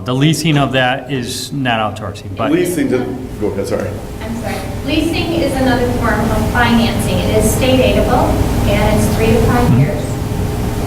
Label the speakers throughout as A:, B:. A: The leasing of that is not outsourcing, but
B: Leasing to, go ahead, sorry.
C: I'm sorry. Leasing is another form of financing. It is state aidable, and it's three to five
A: Mm-hmm.
C: years.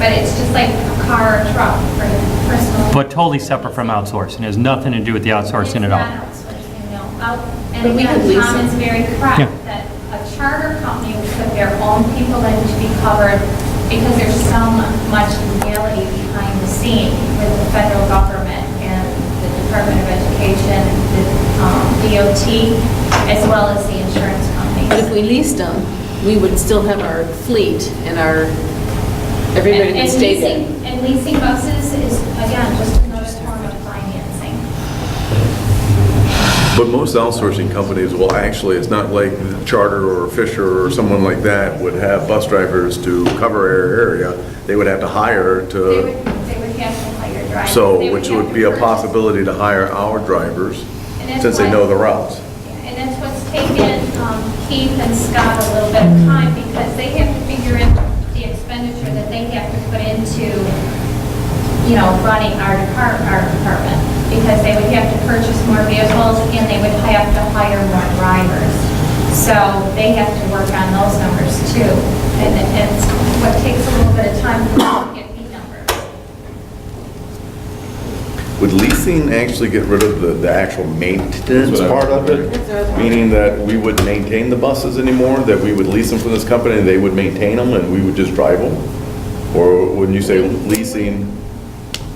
C: But it's just like a car or truck for personal.
A: but totally separate from outsourcing. Has nothing to do with the outsourcing at all.
C: It's not outsourcing, no. Out- And
D: But we
C: again,
D: could lease
C: Tom
D: it.
C: is very
A: Yeah.
C: correct that a charter company would put their own people in to be covered because there's so mu- much legality behind the scene with the federal government and the Department of Education, the um, DOT, as well as the insurance companies.
D: But if we leased them, we would still have our fleet and our, everybody
C: And-
D: that
C: and
D: stayed there.
C: leasing- And leasing buses is, again, just another form of financing.
B: But most outsourcing companies will actually, it's not like Charter or Fisher or someone like that would have bus drivers to cover our area. They would have to hire
C: They would,
B: to,
C: they would have to hire drivers. They
B: so, which
C: have
B: would
C: to
B: be a
C: purchase-
B: possibility to hire our drivers,
C: And that's
B: since they
C: why-
B: know the routes.
C: And that's what's taken um, Keith and Scott a little bit of time because they have to figure in the expenditure that they have to put into, you know, running our depart, our department. Because they would have to purchase more vehicles and they would have to hire more drivers. So they have to work on those numbers too. And it- it's what takes a little bit of time for them to get the numbers.
B: Would leasing actually get rid of the, the actual maintenance part of it? Meaning that we wouldn't maintain the buses anymore, that we would lease them from this company, and they would maintain them, and we would just drive them? Or wouldn't you say leasing?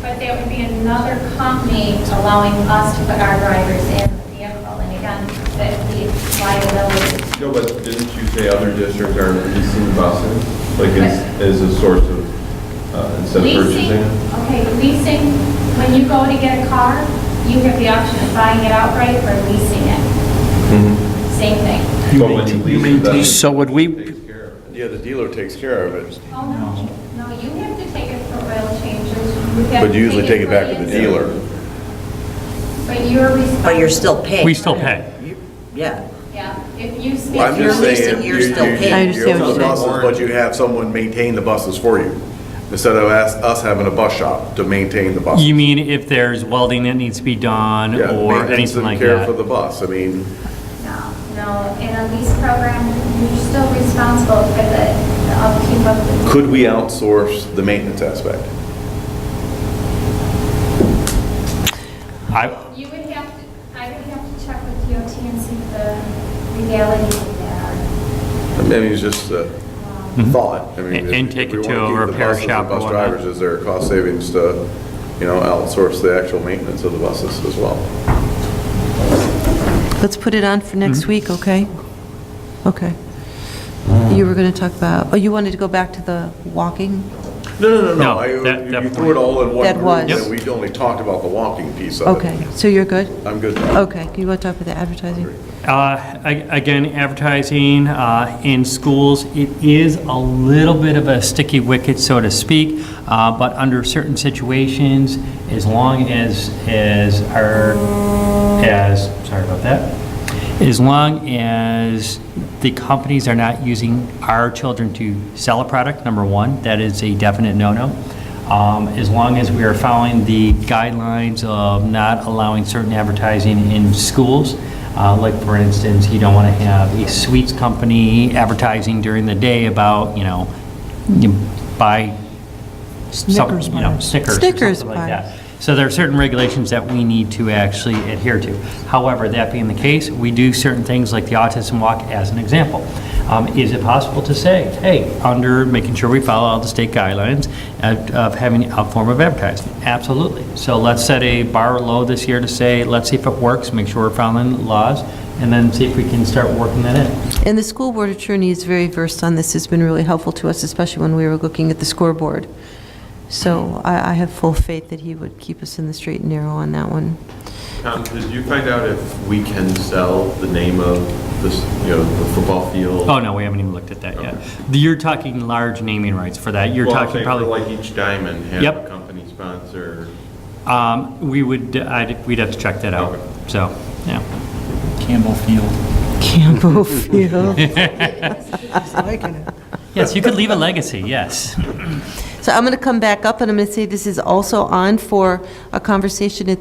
C: But there would be another company allowing us to put our drivers in the vehicle, and again, that the liability.
E: No, but didn't you say other districts are leasing buses? Like, as, as a source of, uh, instead of
C: Leasing,
E: purchasing?
C: okay, leasing, when you go to get a car, you have the option of buying it outright or leasing it.
B: Mm-hmm.
C: Same thing.
E: But when you lease it, that
F: So would we,
E: takes care of it.
B: Yeah, the dealer takes care of it,
C: Oh, no, no, you have to take it for oil changes. You have
B: but you usually take it
C: for
B: back to the
C: insurance,
B: dealer.
C: But you're responsible.
G: But you're still paying.
A: We still pay.
G: You- Yeah.
C: Yeah, if you speak.
B: I'm just
G: you're
B: saying.
G: leasing, you're
B: you-
G: still
B: you-
G: paying.
F: I
B: you
F: understand what
B: own the
F: you're
B: buses,
E: saying.
B: But you have someone maintain the buses for you, instead of us, us having a bus shop to maintain the buses.
A: You mean if there's welding that needs to be done
B: Yeah,
A: or
B: maintenance
A: anything
B: and
A: like
B: Care for
A: that?
B: the bus, I mean.
C: No, no, in a lease program, you're still responsible for the the upkeep of the,
B: Could we outsource the maintenance aspect?
A: I,
C: you would have to, I would have to check with DOT and see the legality of that.
B: I mean, it's just a thought. I mean,
A: Mm-hmm. And-
B: if-
A: and
B: if
A: take
B: we
A: it to
B: wanna
A: a
B: keep the
A: repair
B: buses and
A: shop or
B: Bus
A: whatnot.
B: drivers, is there a cost savings to, you know, outsource the actual maintenance of the buses as well?
F: let's put it on for next week, okay? Okay. You were going to talk about, oh, you wanted to go back to the walking?
B: No, no, no,
A: No,
B: no. I-
A: that-
B: You
A: that
B: you threw
A: point.
B: it all in one
F: That
B: group,
F: was-
B: and we only talked about the walking piece of it.
F: Okay, so you're good?
B: I'm good.
F: Okay, you want to talk about the advertising?
A: Uh, a- Again, advertising uh, in schools, it is a little bit of a sticky wicket, so to speak, uh, but under certain situations, as long as, as our, as, sorry about that, as long as the companies are not using our children to sell a product, number one, that is a definite no-no. Um, As long as we are following the guidelines of not allowing certain advertising in schools, Uh, like for instance, you don't want to have a sweets company advertising during the day about, you know, you buy some,
F: Snickers
A: you know,
F: bars.
A: Snickers or
F: Snickers
A: something like
F: bars.
A: that. So there are certain regulations that we need to actually adhere to. However, that being the case, we do certain things like the autism walk as an example. Um, Is it possible to say, hey, under making sure we follow all the state guidelines of of having a form of advertising? Absolutely. So let's set a bar low this year to say, let's see if it works, make sure we're following the laws, and then see if we can start working that in.
F: And the school board attorney is very versed on this, has been really helpful to us, especially when we were looking at the scoreboard. So I, I have full faith that he would keep us in the straight and narrow on that one.
E: Tom, did you find out if we can sell the name of this, you know, the football field?
A: Oh, no, we haven't even looked at that yet. You're talking large naming rights for that. You're
E: Well, I'm
A: talking
E: saying for
A: probably.
E: Like each diamond have
A: Yep.
E: a company sponsor.
A: Um, We would, I'd, we'd have to check that out,
E: Okay.
A: so, yeah.
H: Campbell Field.
F: Campbell Field.
A: Yes, you could leave a legacy, yes.
F: So I'm going to come back up, and I'm going to say this is also on for a conversation at